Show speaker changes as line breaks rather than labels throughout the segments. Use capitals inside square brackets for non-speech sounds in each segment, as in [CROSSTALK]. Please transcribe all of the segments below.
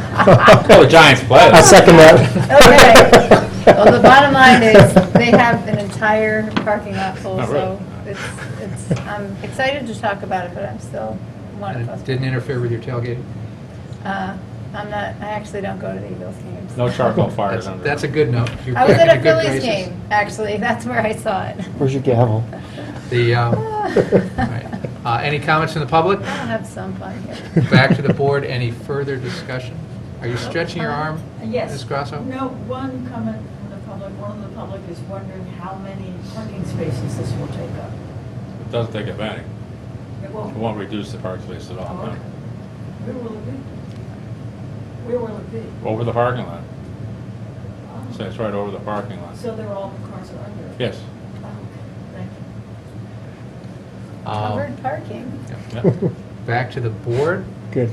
Oh, the Giants play.
I second that. [LAUGHS]
Okay. Well, the bottom line is, they have an entire parking lot full,
Not really.
so it's, it's, I'm excited to talk about it, but I'm still one
And
of
it
us.
didn't interfere with your tailgate?
Uh, I'm not, I actually don't go to the Eagles games.
No charcoal fires
That's
under.
that's a good note. [LAUGHS] You're
I was at
back in
a
the good
Phillies
graces.
game, actually, that's where I saw it.
Where's your gavel?
[LAUGHS]
The, um, all right.
I'll
Uh, any comments from the public?
have some fun here.
Back to the board, any further discussion? Are you stretching
Uh,
your arm?
Uh, Yes.
Ms. Grasso?
No, one comment from the public, one of the public is wondering how many parking spaces this will take up.
It doesn't take advantage.
It
It
won't.
won't reduce the park space at all. no.
Where will it be? Where will it be?
Over the parking lot.
Oh,
So it's right over the parking lot.
So they're all, the cars are under? it?
Yes.
Oh, okay. Thank
[LAUGHS]
you.
Um,
Covered parking.
Yeah.
Back to the board,
Good.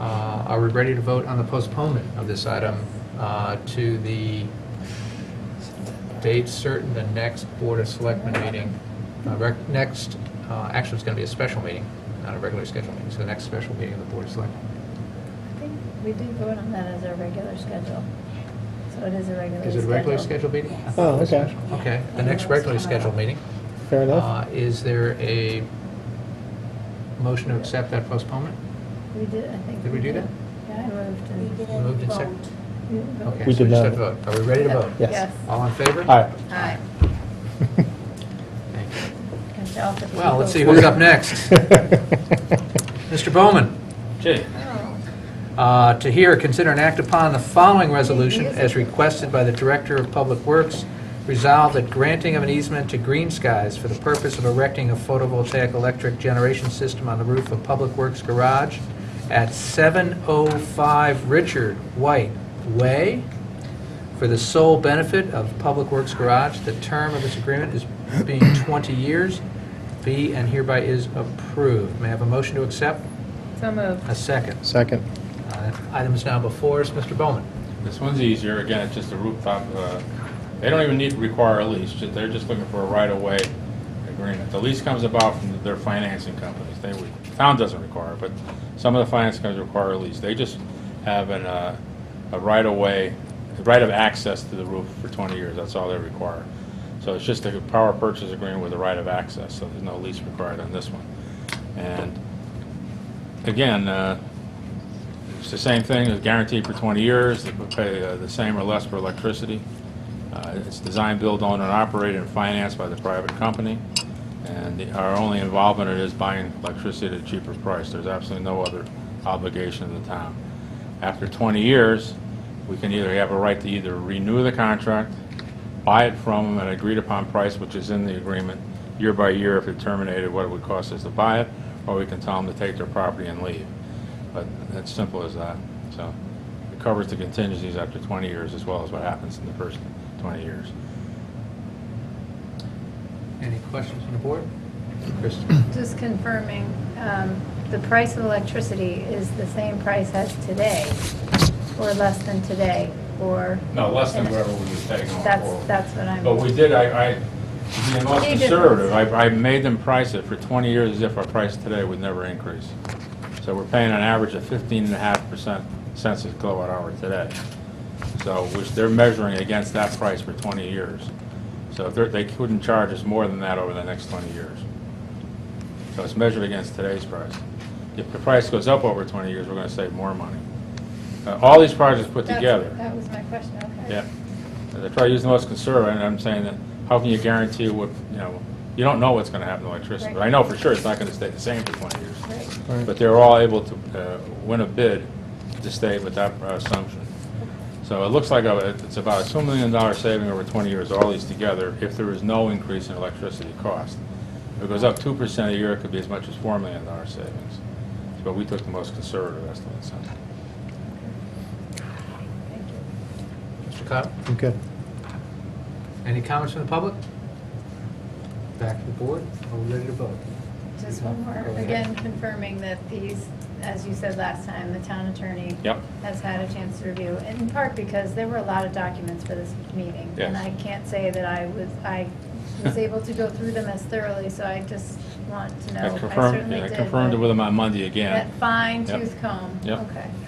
Uh, are we ready to vote on the postponement of this item uh, to the date certain, the next Board of Selectmen meeting? Uh, rec- Next, uh, actually, it's going to be a special meeting, not a regularly scheduled meeting, so the next special meeting of the Board of Selectmen.
I think we did vote on that as our regular schedule. So it is a regular schedule.
Is it a regularly scheduled meeting? I thought it was
Oh, okay.
special. Okay, the next regularly scheduled meeting.
Fair enough.
Uh, Is there a motion to accept that postponement?
We did, I think.
Did we do that?
Yeah, I moved and.
Moved and seconded.
you voted.
Okay,
We
so
did
just
not.
had to vote. Are we ready to vote?
Yes.
Yes.
All in favor?
All right.
Aye.
Thank you.
Catch all the
Well, let's see
people.
who's up next. Mr. Bowman,
Gee,
Oh,
uh, to hear, consider and act upon the following resolution as requested by the Director of Public Works. Resolve that granting of an easement to Green Skies for the purpose of erecting a photovoltaic electric generation system on the roof of Public Works Garage at 705 Richard White Way for the sole benefit of Public Works Garage. The term of this agreement is being [COUGHS] 20 years. Be and hereby is approved. May I have a motion to accept?
So moved.
A
[LAUGHS]
second.
Second.
Uh, Item is now before us, Mr. Bowman.
This one's easier. Again, it's just a rooftop. uh, They don't even need to require a lease. ju- They're just looking for a right-of-way agreement. The lease comes about from their financing companies. They, would- town doesn't require it, but some of the finance companies require a lease. They just have an, uh, a right-of-way, a right of access to the roof for 20 years. That's all they require. So it's just a power purchase agreement with a right of access, so there's no lease required on this one. And again, uh, it's the same thing, it's guaranteed for 20 years, they would pay uh, the same or less for electricity. Uh, It's designed, built, owned, and operated and financed by the private company, and the- our only involvement in it is buying electricity at a cheaper price. There's absolutely no other obligation in the town. After 20 years, we can either have a right to either renew the contract, buy it from them at an agreed-upon price, which is in the agreement, year by year, if it terminated, what it would cost us to buy it, or we can tell them to take their property and leave. But it's simple as that. So it covers the contingencies after 20 years as well as what happens in the first 20 years.
Any questions from the board? Chris?
Just confirming, um, the price of electricity is the same price as today, or less than today, or?
No, less than whatever we was taking on
That's,
forward.
that's what I'm.
But we did, I, I, to be the most
Key difference.
conservative, I, I made them price it for 20 years as if our price today would never increase. So we're paying an average of 15 and a half percent cents a kilowatt hour today. So, which they're measuring against that price for 20 years. So if they're, they couldn't charge us more than that over the next 20 years. So it's measured against today's price. If the price goes up over 20 years, we're gonna save more money. Uh, All these projects put
That's-
together.
That was my question, okay.
Yeah. As I try to use the most conservative, and I'm saying that, how can you guarantee what, you know, you don't know what's gonna happen to electricity. But I know for sure it's not gonna stay the same for twenty years.
Right.
Right.
But they're all able to uh, win a bid to stay with that uh, assumption. So it looks like a- it's about a $2 million saving over 20 years, all these together, if there is no increase in electricity cost. If it goes up 2% a year, it could be as much as $4 million savings. But we took the most conservative estimates on it.
Thank you.
Mr. Cobb?
I'm good.
Any comments from the public? Back to the board, are we ready to vote?
Just one more,
Go ahead.
again, confirming that these, as you said last time, the town attorney
Yep.
has had a chance to review, in part because there were a lot of documents for this meeting.
Yes.
And I can't say that I was, I was able to go through them as thoroughly, so I just want to know.
I confirmed,
certainly
yeah, I
did,
confirmed it
but
with them on Monday again.
That fine
Yep.
tooth comb,
Yep.
okay.